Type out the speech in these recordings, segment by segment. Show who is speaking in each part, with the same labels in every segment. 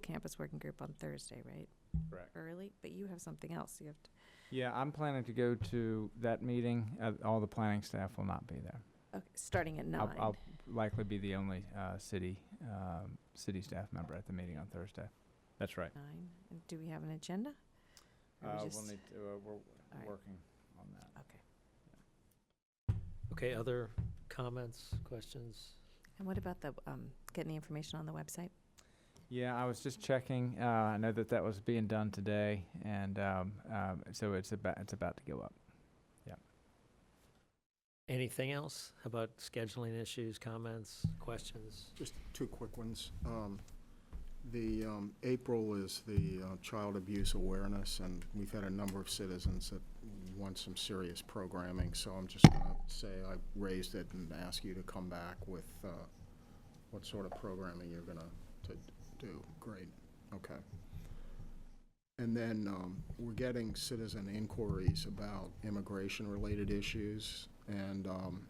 Speaker 1: campus working group on Thursday, right?
Speaker 2: Correct.
Speaker 1: Early, but you have something else you have to,
Speaker 2: Yeah, I'm planning to go to that meeting. Uh, all the planning staff will not be there.
Speaker 1: okay, starting at
Speaker 2: I'll,
Speaker 1: nine.
Speaker 2: I'll likely be the only uh, city um, city staff member at the meeting on Thursday. That's right.
Speaker 1: Nine. And do we have an agenda? Or we just-
Speaker 2: to, uh, we're
Speaker 1: right.
Speaker 2: working on that.
Speaker 3: Okay, other comments, questions?
Speaker 1: And what about the, um, getting the information on the website?
Speaker 2: Yeah, I was just checking. Uh, I know that that was being done today, and um, um, so it's about it's about to go up.
Speaker 3: Anything else about scheduling issues, comments, questions?
Speaker 4: Just two quick ones. Um, The, um, April is the uh, Child Abuse Awareness, and we've had a number of citizens that want some serious programming, so I'm just going to say I raised it and ask you to come back with uh, what sort of programming you're going to do. Great, okay. And then um, we're getting citizen inquiries about immigration-related issues, and um,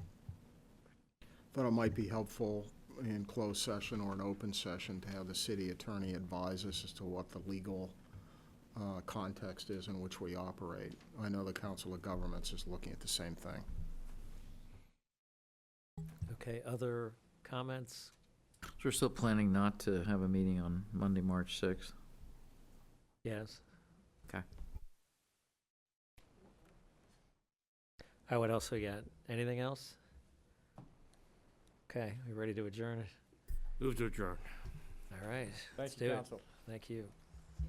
Speaker 4: thought it might be helpful in closed session or an open session to have the city attorney advise us as to what the legal uh, context is in which we operate. I know the Council of Governments is looking at the same thing.
Speaker 3: Okay, other comments?
Speaker 5: So we're still planning not to have a meeting on Monday, March 6th?
Speaker 3: Yes?
Speaker 5: Okay.
Speaker 3: All right, what else we got? Anything else? Okay, we ready to adjourn?
Speaker 6: Move to adjourn.
Speaker 3: All right,
Speaker 2: Thank
Speaker 3: Let's you, do it. thank you.